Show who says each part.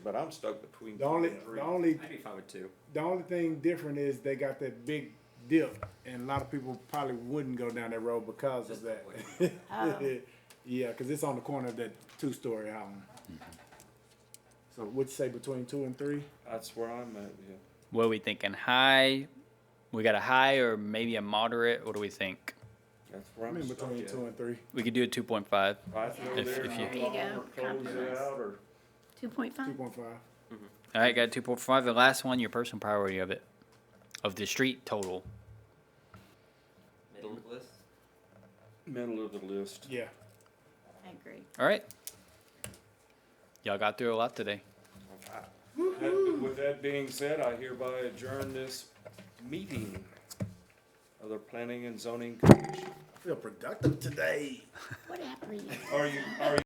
Speaker 1: But I'm stuck between.
Speaker 2: The only,
Speaker 1: two and three.
Speaker 2: the only,
Speaker 3: I'd be fine with two.
Speaker 2: the only thing different is they got that big dip, and a lot of people probably wouldn't go down that road because of that. yeah, because it's on the corner of that two-story house. Mm-hmm. So, would you say between two and three?
Speaker 1: That's where I'm at, yeah.
Speaker 4: What are we thinking? High? We got a high or maybe a moderate? What do we think?
Speaker 1: That's where
Speaker 2: I
Speaker 1: I'm
Speaker 2: mean,
Speaker 1: stuck
Speaker 2: between
Speaker 1: at.
Speaker 2: two and three.
Speaker 4: We could do a 2.5.
Speaker 1: Right through
Speaker 4: If-
Speaker 1: there.
Speaker 4: if you-
Speaker 1: and
Speaker 5: There you go,
Speaker 1: or Close it
Speaker 5: compromise.
Speaker 1: out or,
Speaker 5: Two point
Speaker 2: Two
Speaker 5: five?
Speaker 2: point five.
Speaker 4: All right, got 2.5. The last one, your personal priority of it, of the street total.
Speaker 3: Middle list.
Speaker 1: middle of the list.
Speaker 2: Yeah.
Speaker 5: I agree.
Speaker 4: All right. Y'all got through a lot today.
Speaker 1: That- With that being said, I hereby adjourn this meeting of the Planning and Zoning Commission.
Speaker 2: Feel productive today.
Speaker 5: What happened?
Speaker 1: Are you, are you?